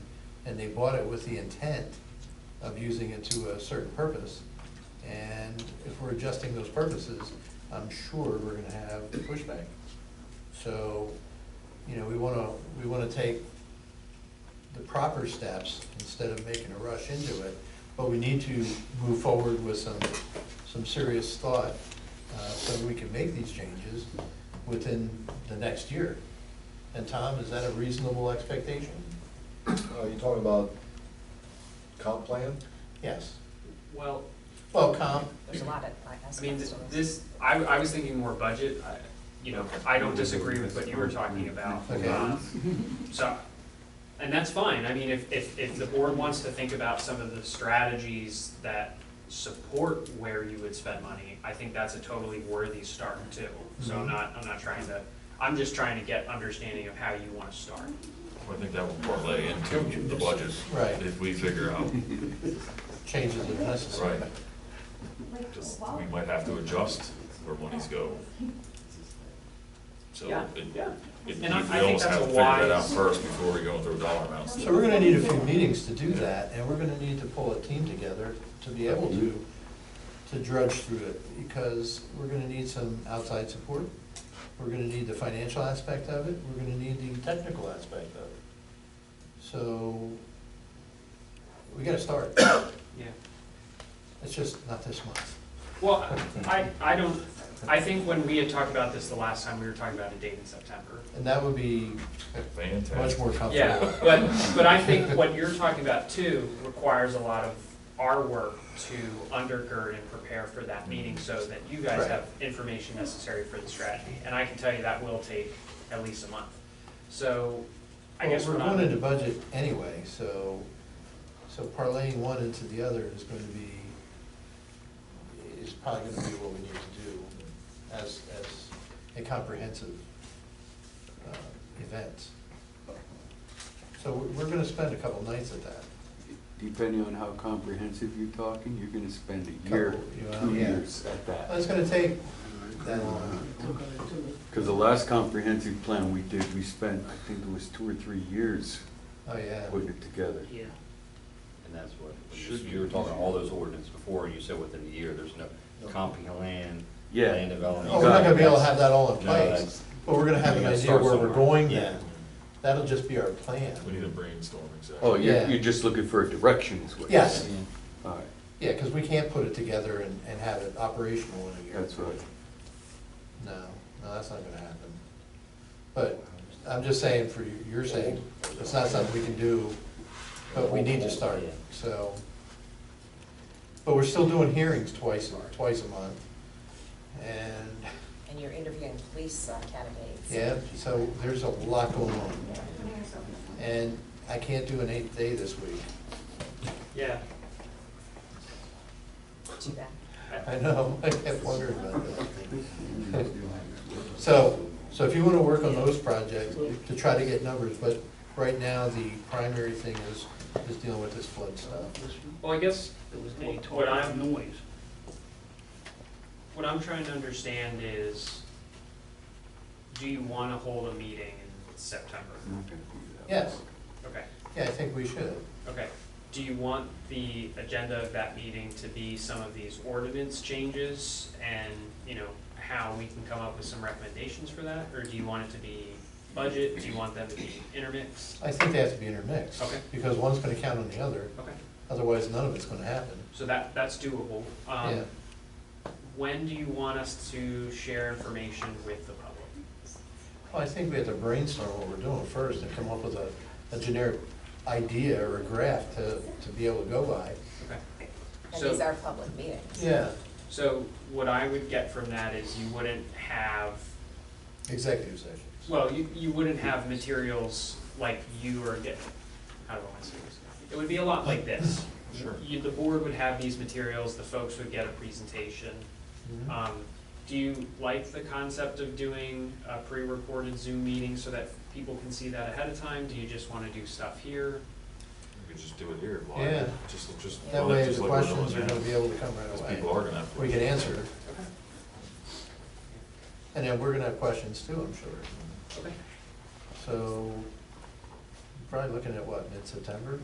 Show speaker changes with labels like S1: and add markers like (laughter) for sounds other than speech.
S1: and they bought it with the intent of using it to a certain purpose. And if we're adjusting those purposes, I'm sure we're gonna have pushback. So, you know, we wanna, we wanna take the proper steps instead of making a rush into it. But we need to move forward with some, some serious thought, uh, so that we can make these changes within the next year. And Tom, is that a reasonable expectation?
S2: Are Uh, you talking about comp plan?
S1: Yes.
S3: Well,
S1: Well, comp,
S4: There's a lot of
S3: I
S4: aspects
S3: mean,
S4: to this.
S3: this, I, I was thinking more budget, I, you know, I don't disagree with what you were talking about.
S1: Okay.
S3: Um, So, and that's fine, I mean, if, if, if the board wants to think about some of the strategies that support where you would spend money, I think that's a totally worthy start too. So I'm
S1: Mhm.
S3: not, I'm not trying to, I'm just trying to get understanding of how you wanna start.
S5: I think that will parlay into the budget.
S1: Right.
S5: If we figure out,
S1: changes if necessary.
S5: Right. just, we might have to adjust where monies go. So
S3: Yeah,
S5: it,
S3: yeah.
S5: it, we
S3: And I- I think
S5: almost
S3: that's
S5: have
S3: a
S5: to figure that out
S3: wise-
S5: first before we go into dollar amounts.
S1: So we're gonna need a few meetings to do that, and we're gonna need to pull a team together to be able to, to drudge through it, because we're gonna need some outside support. We're gonna need the financial aspect of it, we're gonna need the technical aspect of it. So, we gotta start,
S3: Yeah.
S1: it's just not this month.
S3: Well, I, I don't, I think when we had talked about this the last time, we were talking about a date in September.
S1: And that would be much
S5: Fantastic.
S1: more comfortable.
S3: Yeah, but, but I think what you're talking about too requires a lot of our work to undergird and prepare for that meeting so that you guys
S1: Right.
S3: have information necessary for the strategy. And I can tell you that will take at least a month. So I
S1: Well,
S3: guess we're
S1: we're
S3: not.
S1: going into budget anyway, so, so parlaying one into the other is going to be, is probably going to be what we need to do as, as a comprehensive uh, event. So we're- we're going to spend a couple nights at that.
S6: Depending on how comprehensive you're talking, you're gonna spend a
S1: Couple,
S6: year,
S1: you know,
S6: two
S1: yeah.
S6: years at
S1: Well, It's
S6: that. Uh,
S1: going to take that long.
S6: Cause the last comprehensive plan we did, we spent, I think it was two or three years
S1: Oh, yeah.
S6: putting it together.
S3: Yeah.
S7: And that's what, when you-
S5: Should be.
S7: you were talking all those ordinance before, and you said within a year, there's no comp plan,
S6: Yeah.
S7: land development.
S1: Oh, we're not going to be able to have that all in
S7: No,
S1: place,
S7: that's-
S1: but we're going to have an
S7: You gotta
S1: idea
S7: start
S1: where we're
S7: somewhere.
S1: going
S7: Yeah.
S1: then. That'll just be our plan.
S5: We need a brainstorm, exactly.
S6: Oh, you're,
S1: Yeah.
S6: you're just looking for a direction is what you're
S1: Yes.
S6: saying? Alright,
S1: Yeah, because we can't put it together and, and have it operational in a year.
S6: that's right.
S1: No, no, that's not gonna happen. But I'm just saying for you- your sake, it's not something we can do, but we need to start, so. But we're still doing hearings twice, twice a month. And,
S4: And you're interviewing police uh, candidates.
S1: yeah, so there's a lot going on. And I can't do an eighth day this week.
S3: Yeah.
S4: Too bad.
S1: I know, (laughs) I kept wondering about that. So, so if you wanna work on those projects to try to get numbers, but right now, the primary thing is, is dealing with this flood stuff.
S3: Well, I guess
S8: There was
S3: Hey,
S8: no
S3: what
S8: total
S3: I'm-
S8: noise.
S3: What I'm trying to understand is, do you want to hold a meeting in September?
S6: I'm not gonna do that.
S1: Yes,
S3: Okay,
S1: yeah, I think we should.
S3: okay. Do you want the agenda of that meeting to be some of these ordinance changes and, you know, how we can come up with some recommendations for that? Or do you want it to be budget? Do you want them to be intermixed?
S1: I think they have to be intermixed.
S3: Okay.
S1: Because one's gonna count on the other,
S3: Okay,
S1: otherwise none of it's gonna happen.
S3: so that, that's doable. Um,
S1: Yeah.
S3: When do you want us to share information with the public?
S1: Well, I think we have to brainstorm what we're doing first and come up with a, a generic idea or a graph to, to be able to go by.
S3: Okay.
S4: And
S3: So-
S4: these are public meetings.
S1: Yeah,
S3: So what I would get from that is you wouldn't have,
S1: executive sessions.
S3: well, you, you wouldn't have materials like you are getting, how do I want to say this? It would be a lot like this.
S5: Sure.
S3: You, the board would have these materials, the folks would get a presentation.
S1: Mhm.
S3: Um, do you like the concept of doing a pre-recorded Zoom meeting so that people can see that ahead of time? Do you just want to do stuff here?
S5: We could just do it here,
S1: Yeah.
S5: live, just, just.
S1: That way,
S5: just
S1: the
S5: like we're doing
S1: questions are
S5: now.
S1: gonna be able to come right
S5: Because
S1: away.
S5: people are gonna have.
S1: we can answer,
S3: Okay.
S1: and then we're gonna have questions too, I'm sure.
S3: Okay.
S1: So, probably looking at what, mid-September?